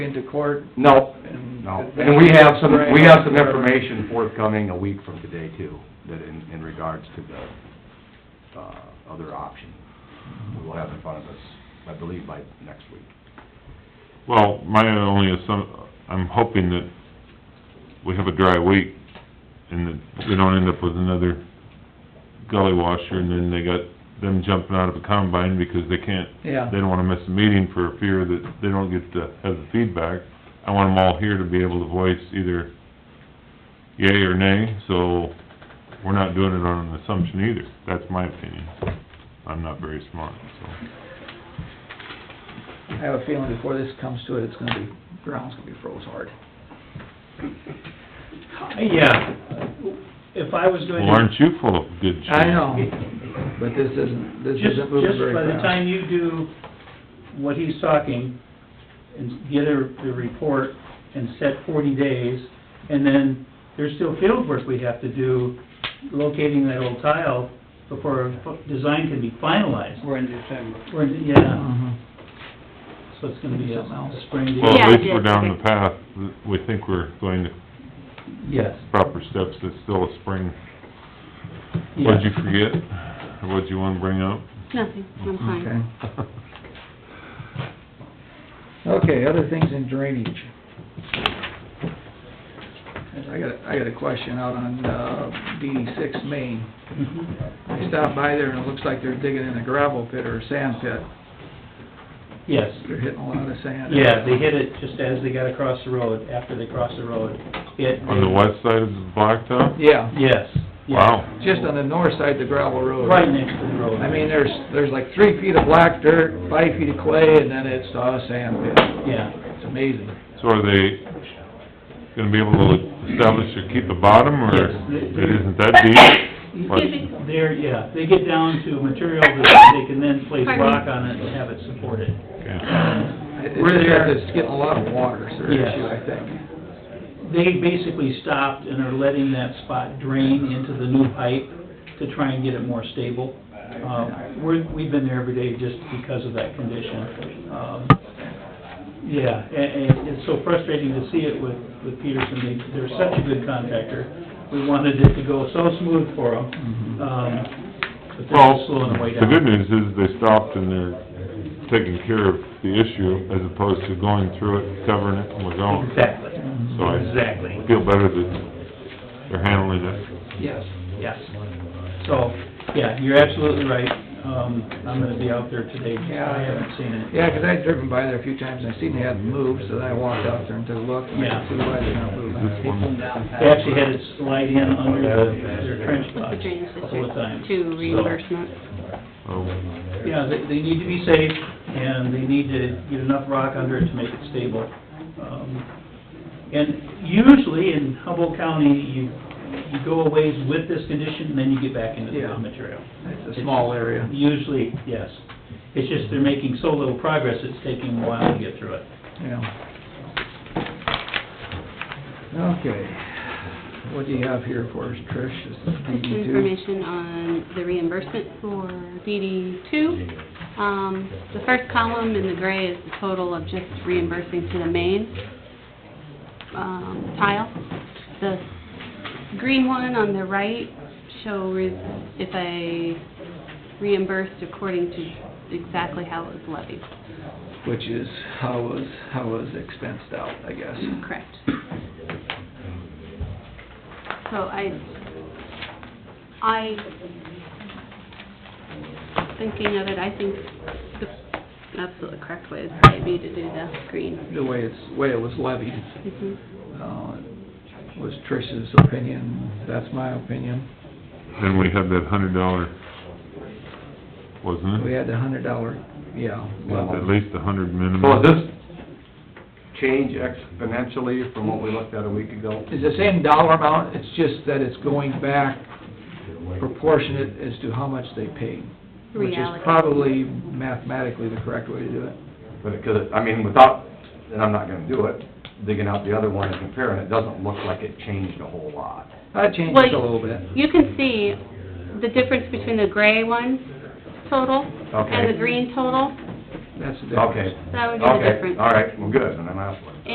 into court No, and... no, and we have some, we have some information forthcoming a week from today too, that in, in regards to the, uh, other option. We will have in front of us, I believe by next week. Well, my only assumption, I'm hoping that we have a dry week and that we don't end up with another gully washer and then they got them jumping out of a combine because they can't, Yeah. they don't wanna miss a meeting for fear that they don't get to have the feedback. I want them all here to be able to voice either yay or nay, so we're not doing it on an assumption either. That's my opinion. I'm not very smart, so. I have a feeling before this comes to it, it's gonna be, ground's gonna be froze hard. Yeah, if I was going Well, to, aren't you full of good shit? I know, but this isn't, this just, isn't moving just very by the fast. time you do what he's talking, and get a, the report and set forty days, and then there's still field work we have to do, locating that old tile before a f- design can be finalized. We're in December. Or, yeah, Mhm. so it's gonna be Something else. a spring Well, deal. Yeah, at I least we're did, down okay. the path, that we think we're going the Yes. proper steps, it's still a spring. yeah. What'd you forget, or what'd you wanna bring up? Nothing, I'm Okay. fine. Okay, other things in drainage. I got, a- I got a question out on, uh, DD six main. Mhm. I stopped by there and it looks like they're digging in a gravel pit or a sand pit. Yes. They're hitting a lot of sand. Yeah, they hit it just as they got across the road, after they crossed the road. It- On the west side of the blacktop? Yeah, Yes. yeah. Wow, just on the north side of the gravel road. Right next to the road. I mean, there's, there's like three feet of black dirt, five feet of clay, and then it's a sand pit. Yeah, It's amazing. so are they gonna be able to establish or keep the bottom, or Yes, they- it isn't that deep? Excuse me. there, yeah, they get down to material that they can then place rock on it and have it supported. Okay. We're there. It's getting a lot of water, it's their Yes. issue, I think. They basically stopped and are letting that spot drain into the new pipe to try and get it more stable. Uh, we're, we've been there every day just because of that condition. Um, Yeah, and, and it's so frustrating to see it with, with Peterson, they, they're such a good contractor. We wanted it to go so smooth for them, um, but they're Well, just slowing way the down. good news is they stopped and they're taking care of the issue as opposed to going through it, covering it, and we're going. Exactly, So I exactly, feel better that they're handling it. Yes. yes. So, yeah, you're absolutely right, um, I'm gonna be out there today, Yeah. I haven't seen it. Yeah, 'cause I'd driven by there a few times, and I seen they hadn't moved, so then I walked out there and took a look, and I Yeah. could see why they're not moving. Come down They past. actually had it slide in under the, their trench With the box drainage the whole time. district to reimbursement. Oh. So, Yeah, they, they need to be safe, and they need to get enough rock under it to make it stable. Um, And usually in Humboldt County, you, you go a ways with this condition, and then you get back into the Yeah. material. It's a small area. Usually, yes. It's just they're making so little progress, it's taking a while to get through it. Yeah. Okay. What do you have here for us, Trish? This is Just some DD two? information on the reimbursement for DD two. Um, the first column in the gray is the total of just reimbursing to the main, um, tile. The green one on the right show re- if I reimbursed according to exactly how it was levied. Which is, how was, how was expensed out, I guess. Correct. So I, I, thinking of it, I think the absolutely correct way is maybe to do the green. The way it's, way it was levied, Mhm. uh, was Trish's opinion, that's my opinion. Then we had that hundred dollar, wasn't We it? had the hundred dollar, yeah, Well, At level. least a hundred minimum. So does this change exponentially from what we looked at a week ago? It's the same dollar amount, it's just that it's going back proportionate as to how much they paid. Which is Reallocated. probably mathematically the correct way to do it. But it could, I mean, without, and I'm not gonna do it, digging out the other one and comparing, it doesn't look like it changed a whole lot. I changed Well, it a little bit. You can see the difference between the gray one total and Okay. the green total. that's the difference. Okay. That would be the Okay, difference. All right, well, good, and I'm out.